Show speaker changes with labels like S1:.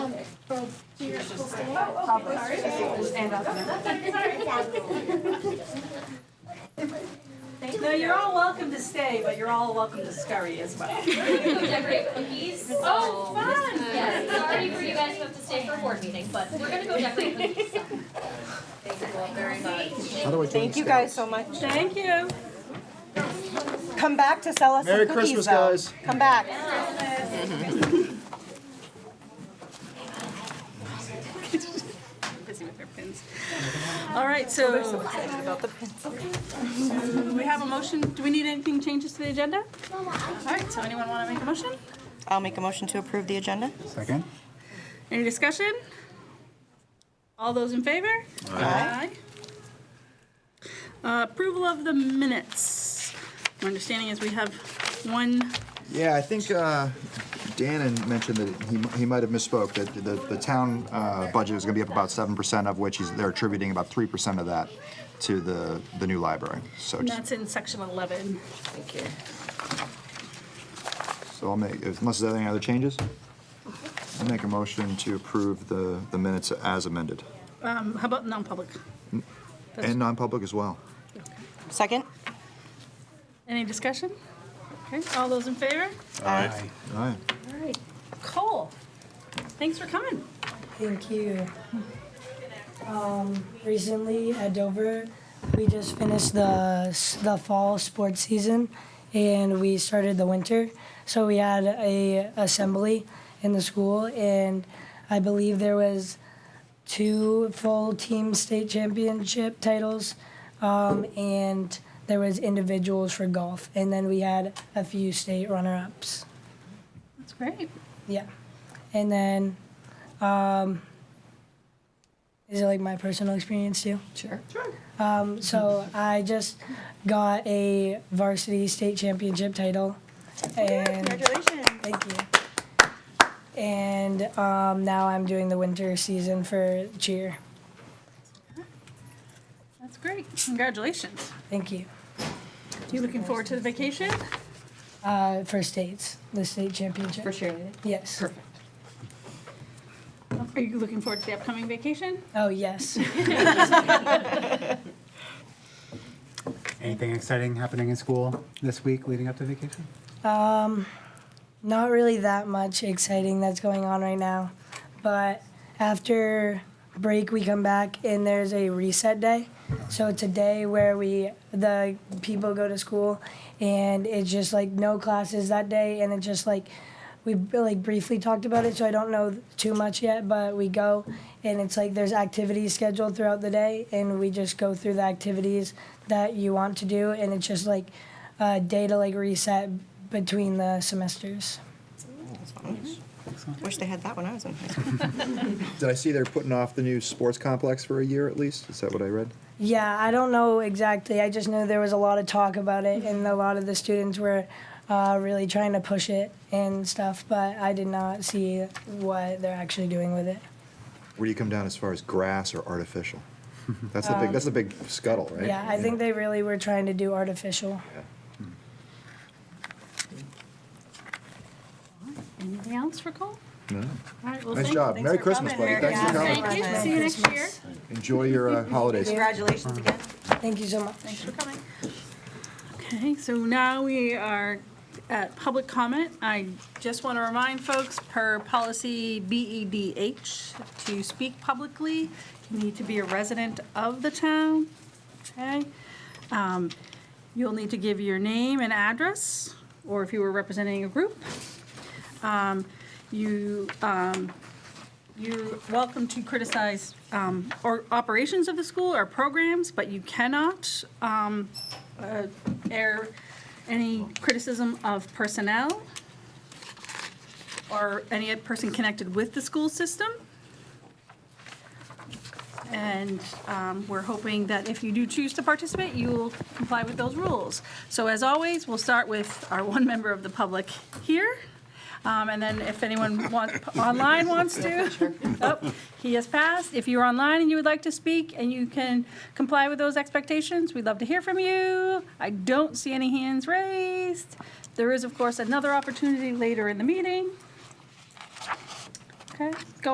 S1: No, you're all welcome to stay, but you're all welcome to scurry as well.
S2: Decorate cookies.
S3: Oh, fun!
S2: Yes, sorry for you guys who have to stay for board meeting, but we're gonna go decorate cookies. Thank you all very much.
S4: How do I join
S5: Thank you
S4: Scouts?
S5: guys so much.
S1: Thank you.
S5: Come back to sell us
S4: Merry
S5: some cookies,
S4: Christmas,
S5: though.
S4: guys.
S5: Come back.
S1: Busy with their pins. All right, so
S5: About the pencil.
S1: do we have a motion. Do we need anything changes to the agenda? All right, so anyone want to make a motion?
S5: I'll make a motion to approve the agenda.
S4: Second?
S1: Any discussion? All those in favor? Aye.
S5: Aye.
S1: Uh, Approval of the minutes. My understanding is we have one,
S6: Yeah, I think uh, Dan had mentioned that he, he might have misspoke, that the, the town uh, budget is going to be up about 7%, of which he's, they're attributing about 3% of that to the, the new library. So
S1: and
S6: just,
S1: that's in section 11.
S6: so I'll make, unless there's any other changes, I'll make a motion to approve the, the minutes as amended.
S1: Um, How about non-public?
S6: And non-public as well.
S5: Second?
S1: Any discussion? Okay, all those in favor?
S4: Aye.
S6: All right.
S1: All right. Cole, thanks for coming.
S7: Thank you. Um, recently at Dover, we just finished the the fall sports season, and we started the winter. So we had a assembly in the school, and I believe there was two full team state championship titles, um, and there was individuals for golf, and then we had a few state runner ups.
S1: That's great.
S7: Yeah. And then, um, is it like my personal experience too?
S5: Sure.
S7: Um, so I just got a varsity state championship title. And
S5: Congratulations.
S7: thank you. And um, now I'm doing the winter season for cheer.
S1: That's great. Congratulations.
S7: Thank you.
S1: You looking forward to the vacation?
S7: Uh, for states, the state championship.
S5: For cheerleading.
S7: Yes.
S1: Are you looking forward to the upcoming vacation?
S7: Oh, yes.
S4: Anything exciting happening in school this week leading up to vacation?
S7: not really that much exciting that's going on right now. But after break, we come back and there's a reset day. So it's a day where we the people go to school, and it's just like no classes that day, and it's just like we like briefly talked about it. So I don't know too much yet, but we go and it's like there's activities scheduled throughout the day, and we just go through the activities that you want to do, and it's just like a day to like reset between the semesters.
S5: Wish they had that when I was in high school.
S6: Did I see they're putting off the new sports complex for a year at least? Is that what I read?
S7: Yeah, I don't know exactly. I just know there was a lot of talk about it, and a lot of the students were uh, really trying to push it and stuff. But I did not see what they're actually doing with it.
S6: Where do you come down as far as grass or artificial? That's the big, that's the big scuttle, right?
S7: Um, Yeah, I think they really were trying to do artificial.
S1: Anything else for Cole?
S6: No.
S1: All right, well,
S6: Nice
S1: thank-
S6: job.
S1: thanks
S6: Merry
S1: for
S6: Christmas,
S1: coming.
S6: buddy. Thanks for
S1: Yeah,
S6: coming.
S1: Thank you. See you next year.
S6: Enjoy your uh, holidays.
S5: Congratulations again.
S7: Thank you so much.
S1: Thanks for coming. Okay, so now we are at public comment. I just want to remind folks, per policy BEDH, to speak publicly, you need to be a resident of the town, okay? Um, You'll need to give your name and address, or if you were representing a group. Um, You um, you're welcome to criticize um, or operations of the school or programs, but you cannot um, uh, air any criticism of personnel or any person connected with the school system. And um, we're hoping that if you do choose to participate, you will comply with those rules. So as always, we'll start with our one member of the public here. Um, And then if anyone wants, online wants to, oh, he has passed. If you're online and you would like to speak and you can comply with those expectations, we'd love to hear from you. I don't see any hands raised. There is, of course, another opportunity later in the meeting. Okay, go